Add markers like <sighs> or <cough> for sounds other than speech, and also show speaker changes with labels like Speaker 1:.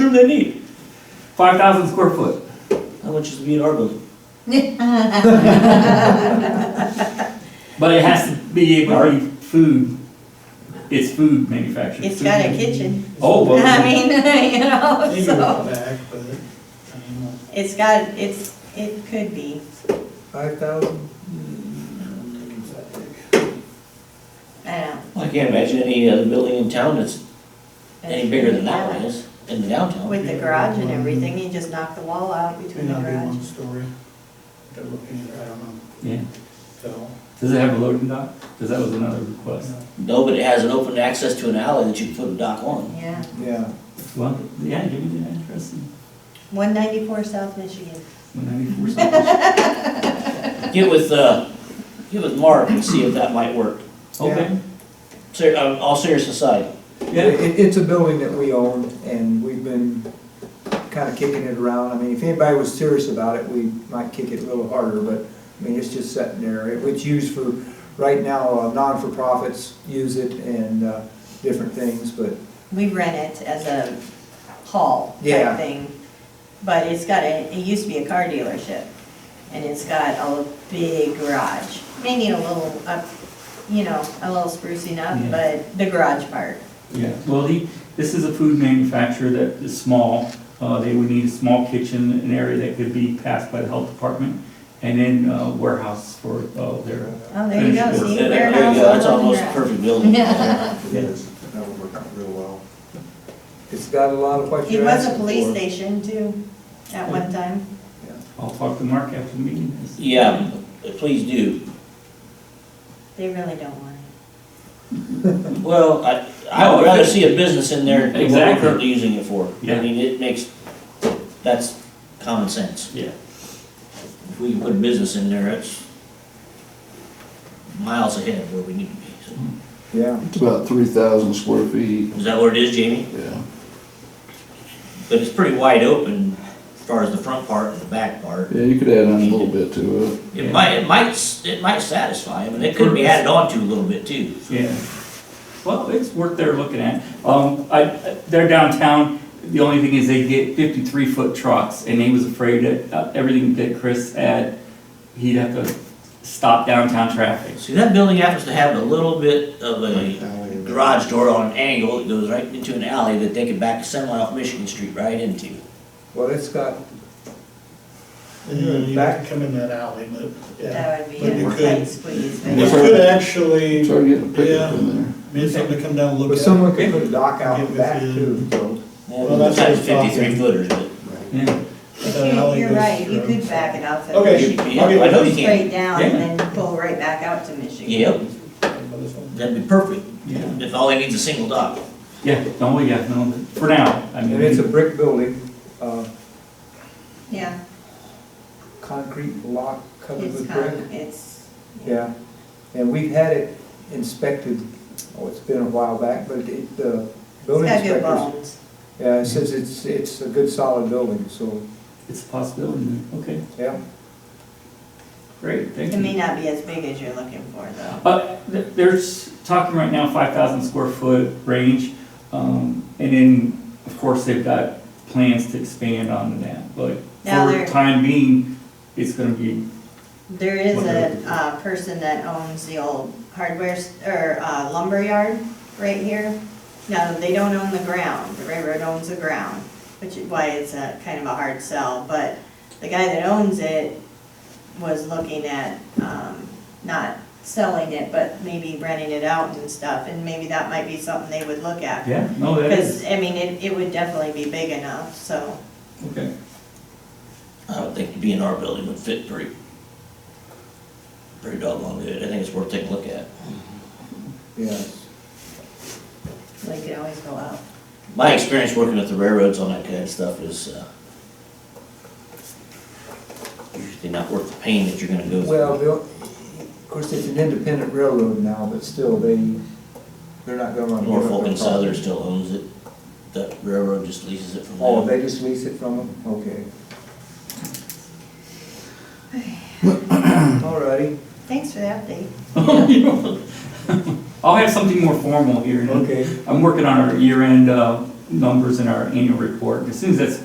Speaker 1: room they need. Five thousand square foot. How much is it be in our building? But it has to be able to be food, it's food manufactured.
Speaker 2: It's got a
Speaker 1: food-
Speaker 2: kitchen.
Speaker 1: Oh, well.
Speaker 2: <laughs> I mean, you know,
Speaker 3: <laughs> Maybe
Speaker 2: so,
Speaker 3: we'll back, but, I mean,
Speaker 2: it's got, it's, it could be.
Speaker 3: five thousand? That big.
Speaker 2: I don't know.
Speaker 4: Well, I can't imagine any other building in town that's any bigger than that one is in the downtown.
Speaker 2: With the garage and everything, you just knock the wall out
Speaker 3: May
Speaker 2: between the
Speaker 3: not be
Speaker 2: garage.
Speaker 3: one story. They're looking at, I don't know,
Speaker 1: Yeah.
Speaker 3: so.
Speaker 1: Does it have a loading dock? Because that was another request.
Speaker 4: No, but it has an open access to an alley that you can put a dock on.
Speaker 2: Yeah,
Speaker 3: Yeah.
Speaker 1: Well, yeah, give me the address and
Speaker 2: one ninety-four South Michigan.
Speaker 1: one ninety-four something.
Speaker 4: Get with, uh, get with Mark and see if that might work.
Speaker 1: Okay,
Speaker 4: Ser, uh, all serious aside,
Speaker 1: yeah.
Speaker 5: It, it's a building that we own and we've been kinda kicking it around. I mean, if anybody was serious about it, we might kick it a little harder, but, I mean, it's just sitting there. It- It's used for, right now, uh, non-for-profits use it and, uh, different things, but
Speaker 2: We rent it as a hall type
Speaker 5: Yeah.
Speaker 2: thing. But it's got a, it used to be a car dealership. And it's got a big garage. May need a little up, you know, a little sprucing
Speaker 1: Yeah.
Speaker 2: up, but the garage part.
Speaker 1: Yeah, well, he, this is a food manufacturer that is small. Uh, they would need a small kitchen, an area that could be passed by the health department, and then uh, warehouse for, uh, their,
Speaker 2: Oh, there you go,
Speaker 1: Finished
Speaker 2: see,
Speaker 4: There- there you
Speaker 2: warehouse.
Speaker 4: go, that's
Speaker 2: all on the
Speaker 4: almost a
Speaker 2: ground.
Speaker 4: perfect building.
Speaker 2: Yeah.
Speaker 5: uh, it
Speaker 1: Yeah.
Speaker 5: is,
Speaker 3: That would work out real well.
Speaker 5: it's got a lot of what
Speaker 2: It
Speaker 5: you're
Speaker 2: was a
Speaker 5: asking for.
Speaker 2: police station too, at one time.
Speaker 1: I'll talk to Mark after the meeting.
Speaker 4: Yeah, please do.
Speaker 2: They really don't want it.
Speaker 4: Well, I, I would rather see a business in there than what we're
Speaker 1: Exactly.
Speaker 4: currently using it for. I
Speaker 1: Yeah.
Speaker 4: mean, it makes, that's common sense.
Speaker 1: Yeah,
Speaker 4: If we can put a business in there, it's miles ahead of where we need to be. So,
Speaker 5: Yeah,
Speaker 6: It's about three thousand square feet,
Speaker 4: Is that what it is, Jamie?
Speaker 6: yeah.
Speaker 4: But it's pretty wide open as far as the front part and the back part.
Speaker 6: Yeah, you could add on a little bit to it.
Speaker 4: It might, it might, s- it might satisfy them, and it could be added on to a little bit too.
Speaker 1: yeah. Well, it's worth their looking at. Um, I, they're downtown, the only thing is they get fifty-three foot trucks, and he was afraid that uh, everything that Chris had, he'd have to stop downtown traffic.
Speaker 4: See, that building happens to have a little bit of a
Speaker 3: Alley.
Speaker 4: garage door on an angle that goes right into an alley that they could back a semi off Michigan Street right into.
Speaker 5: well, it's got,
Speaker 3: And you back come in that alley, but, yeah.
Speaker 2: That would be
Speaker 3: But you
Speaker 2: a
Speaker 3: could-
Speaker 2: tight squeeze. but-
Speaker 3: You
Speaker 6: Yes,
Speaker 3: could
Speaker 6: sir.
Speaker 3: actually,
Speaker 6: Try to get a pickup in there.
Speaker 3: maybe somebody come down and look
Speaker 5: but
Speaker 3: at it.
Speaker 5: someone could put a dock out
Speaker 3: Get
Speaker 5: the back
Speaker 3: within-
Speaker 5: too, so.
Speaker 3: Well, that's what I was talking.
Speaker 4: Fifty-three footers, but
Speaker 1: Yeah,
Speaker 2: But you- You're right, you could back it off.
Speaker 3: Okay.
Speaker 4: you-
Speaker 3: I'll
Speaker 4: yeah,
Speaker 3: give
Speaker 4: I
Speaker 3: you
Speaker 4: know you can.
Speaker 2: Straight down and then pull right back out to Michigan.
Speaker 4: Yep,
Speaker 3: it.
Speaker 4: that'd be perfect,
Speaker 1: yeah,
Speaker 4: if all they needs is a single dock.
Speaker 1: yeah, no, yeah, no, for now, I mean.
Speaker 5: And it's a brick building, uh,
Speaker 2: Yeah,
Speaker 5: concrete block covered
Speaker 2: it's
Speaker 5: with
Speaker 2: kind
Speaker 5: brick.
Speaker 2: of, it's,
Speaker 5: Yeah, and we've had it inspected, oh, it's been a while back, but it, the
Speaker 2: it's
Speaker 5: building
Speaker 2: got good
Speaker 5: inspectors.
Speaker 2: bones.
Speaker 5: Yeah, it says it's, it's a good solid building, so,
Speaker 1: It's a possibility, okay,
Speaker 5: yeah.
Speaker 1: great, thank
Speaker 2: It
Speaker 1: you.
Speaker 2: may not be as big as you're looking for though.
Speaker 1: Uh, th- there's talking right now five thousand square foot range, um, and then, of course, they've got plans to expand on that, but
Speaker 2: Now
Speaker 1: for
Speaker 2: they're-
Speaker 1: time being, it's gonna be,
Speaker 2: There is a,
Speaker 1: Wonder-
Speaker 2: uh, person that owns the old hardware, s- or uh, lumber yard right here. Now, they don't own the ground, the railroad owns the ground, which is why it's a kind of a hard sell, but the guy that owns it was looking at, um, not selling it, but maybe renting it out and stuff, and maybe that might be something they would look at.
Speaker 1: yeah, no, that is,
Speaker 2: Because, I mean, it, it would definitely be big enough, so.
Speaker 1: okay.
Speaker 4: I don't think the B and R building would fit pretty, pretty doggone good. I think it's worth taking a look at.
Speaker 5: Yes.
Speaker 2: We could always go out.
Speaker 4: My experience working at the railroads on that kind of stuff is, uh, usually not worth the pain that you're gonna go
Speaker 5: Well,
Speaker 4: through.
Speaker 5: they'll- of course, it's an independent railroad now, but still, they, they're not gonna. give up
Speaker 4: Norfolk
Speaker 5: their
Speaker 4: and Southern
Speaker 5: property.
Speaker 4: still owns it. The railroad just leases it from them.
Speaker 5: Oh, they just lease it from them?
Speaker 2: <sighs>
Speaker 5: Okay. All righty.
Speaker 2: Thanks for the update.
Speaker 1: <laughs> I'll have something more formal here. in a- I'm working on our year-end, uh, numbers in our annual report. As soon as that's